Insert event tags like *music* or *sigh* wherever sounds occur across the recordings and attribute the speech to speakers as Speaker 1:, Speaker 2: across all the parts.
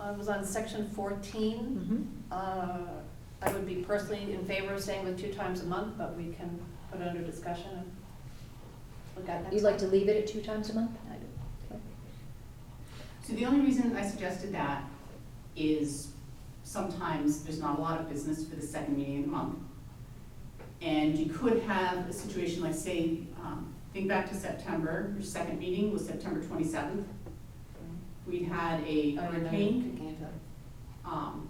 Speaker 1: uh, was on section fourteen. Uh, I would be personally in favor of staying with two times a month, but we can put it under discussion and look at next.
Speaker 2: You'd like to
Speaker 1: time.
Speaker 2: leave it at two times a month?
Speaker 1: I do.
Speaker 3: So the only reason I suggested that is sometimes there's not a lot of business for the second meeting of the month. And you could have a situation like, say, um, think back to September, your second meeting was September twenty-seventh. We had a
Speaker 1: I remember
Speaker 3: hurricane,
Speaker 1: thinking of that.
Speaker 3: um,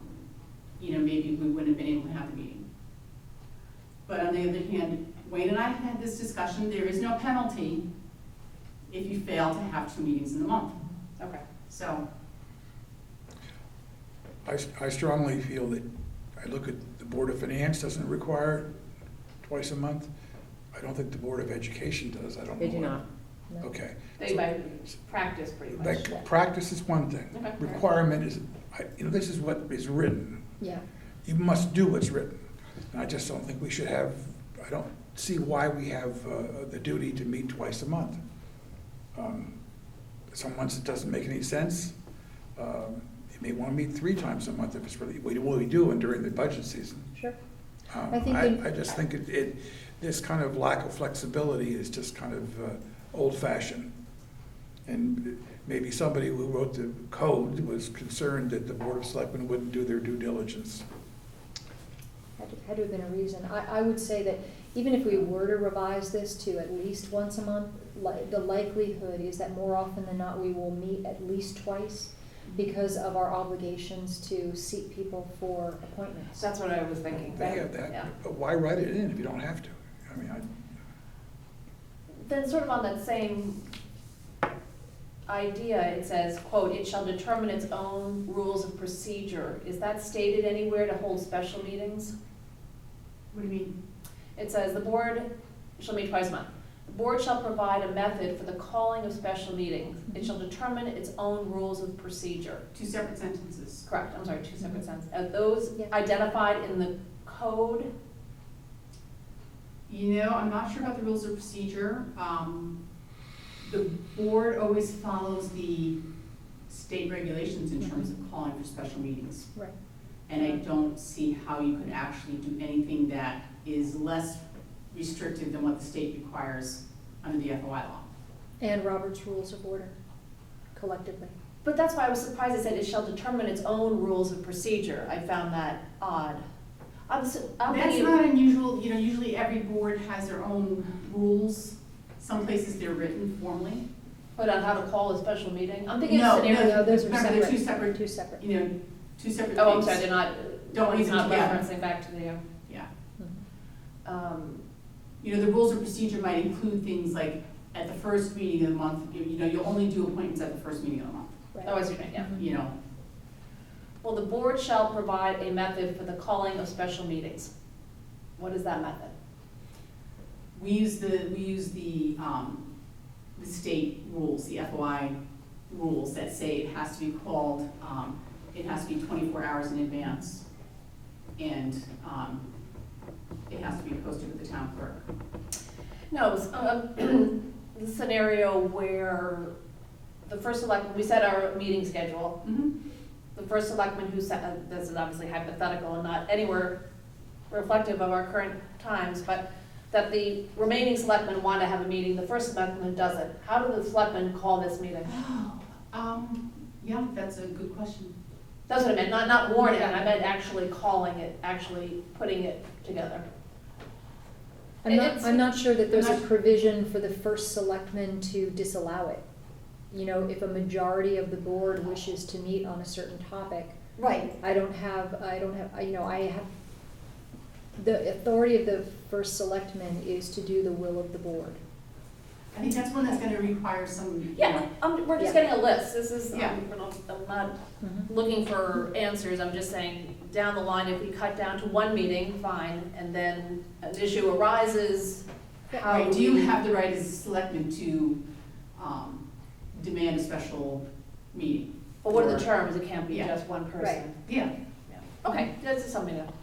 Speaker 3: you know, maybe we wouldn't have been able to have the meeting. But on the other hand, Wayne and I had this discussion, there is no penalty if you fail to have two meetings in the month,
Speaker 1: Okay,
Speaker 3: so.
Speaker 4: I s- I strongly feel that, I look at the Board of Finance doesn't require twice a month. I don't think the Board of Education does, I don't know.
Speaker 5: They do
Speaker 4: what-
Speaker 5: not.
Speaker 2: No.
Speaker 4: Okay.
Speaker 1: they by practice pretty much.
Speaker 4: Like, practice is one thing.
Speaker 1: Okay.
Speaker 4: Requirement is, I- you know, this is what is written.
Speaker 2: Yeah.
Speaker 4: You must do what's written. And I just don't think we should have, I don't see why we have uh, the duty to meet twice a month. Um, Some months it doesn't make any sense. Um, You may want to meet three times a month if it's really, what do we do and during the budget season.
Speaker 2: Sure.
Speaker 4: Um,
Speaker 2: I think in-
Speaker 4: I, I just think it, it, this kind of lack of flexibility is just kind of uh, old-fashioned. And maybe somebody who wrote the code was concerned that the Board of Selectmen wouldn't do their due diligence.
Speaker 2: Had to- had to have been a reason. I, I would say that even if we were to revise this to at least once a month, li- the likelihood is that more often than not, we will meet at least twice because of our obligations to seat people for appointments.
Speaker 1: That's what I was thinking.
Speaker 4: They have
Speaker 1: Yeah.
Speaker 4: that, but why write it in if you don't have to? I mean,
Speaker 1: Then sort of on that same idea, it says, quote, "It shall determine its own rules of procedure." Is that stated anywhere to hold special meetings?
Speaker 3: What do you mean?
Speaker 1: It says, "The board shall meet twice a month. The board shall provide a method for the calling of special meetings. It shall determine its own rules of procedure."
Speaker 3: Two separate sentences.
Speaker 1: Correct, I'm sorry, two separate sentences. Are those
Speaker 2: Yeah.
Speaker 1: identified in the code?
Speaker 3: You know, I'm not sure about the rules of procedure. Um, The board always follows the state regulations in terms of calling for special meetings.
Speaker 2: Right.
Speaker 3: And I don't see how you could actually do anything that is less restrictive than what the state requires under the FOI law.
Speaker 2: And Robert's Rules of Order collectively.
Speaker 1: But that's why I was surprised it said it shall determine its own rules of procedure. I found that odd. I'm, s am
Speaker 3: That's not unusual, you know, usually every board has their own rules. Some places they're written formally.
Speaker 1: but on how to call a special meeting. I'm thinking
Speaker 3: No,
Speaker 1: of scenario.
Speaker 2: No, those are
Speaker 3: Remember, they're two
Speaker 2: separate,
Speaker 3: separate,
Speaker 2: two separate.
Speaker 3: you know, two separate things.
Speaker 1: Oh, I'm sorry, they're not,
Speaker 3: Don't
Speaker 1: he's
Speaker 3: use them
Speaker 1: not
Speaker 3: together.
Speaker 1: referencing back to the,
Speaker 3: Yeah.
Speaker 2: Mm-hmm.
Speaker 1: um,
Speaker 3: You know, the rules of procedure might include things like at the first meeting of the month, you you know, you'll only do appointments at the first meeting of the month,
Speaker 2: Right.
Speaker 1: oh, I see, what you mean, yeah.
Speaker 3: you know.
Speaker 1: Well, the board shall provide a method for the calling of special meetings. What is that method?
Speaker 3: We use the, we use the, um, the state rules, the FOI rules that say it has to be called, um, it has to be twenty-four hours in advance. And, um, it has to be posted with the town clerk.
Speaker 1: No, it was, um, *clears throat* the scenario where the first select, we set our meeting schedule,
Speaker 3: Mm-hmm.
Speaker 1: the first selectman who said, uh, this is obviously hypothetical and not anywhere reflective of our current times, but that the remaining selectmen want to have a meeting, the first selectman doesn't. How do the selectmen call this meeting?
Speaker 3: Um, yeah, that's a good question.
Speaker 1: That's what I meant, not, not warning, I meant actually calling it, actually putting it together.
Speaker 2: I'm not,
Speaker 1: It's-
Speaker 2: I'm not sure that there's a
Speaker 3: I'm not-
Speaker 2: provision for the first selectman to disallow it. You know, if a majority of the board wishes to meet on a certain topic,
Speaker 1: Right.
Speaker 2: I don't have, I don't have, I- you know, I have, the authority of the first selectman is to do the will of the board.
Speaker 3: I think that's one that's gonna require some, you
Speaker 1: Yeah,
Speaker 3: know,
Speaker 1: um, we're just
Speaker 2: Yeah.
Speaker 1: getting a list, this is, um,
Speaker 3: Yeah.
Speaker 1: we're not- I'm not looking for answers, I'm just saying, down the line, if we cut down to one meeting, fine, and then an issue arises, how
Speaker 3: Right, do you
Speaker 1: Uh, we-
Speaker 3: have the right as a selectman to, um, demand a special meeting?
Speaker 1: But what are the
Speaker 3: Or-
Speaker 1: terms? It can't be
Speaker 3: Yeah.
Speaker 1: just one person.
Speaker 3: Yeah,
Speaker 1: Okay, this is something to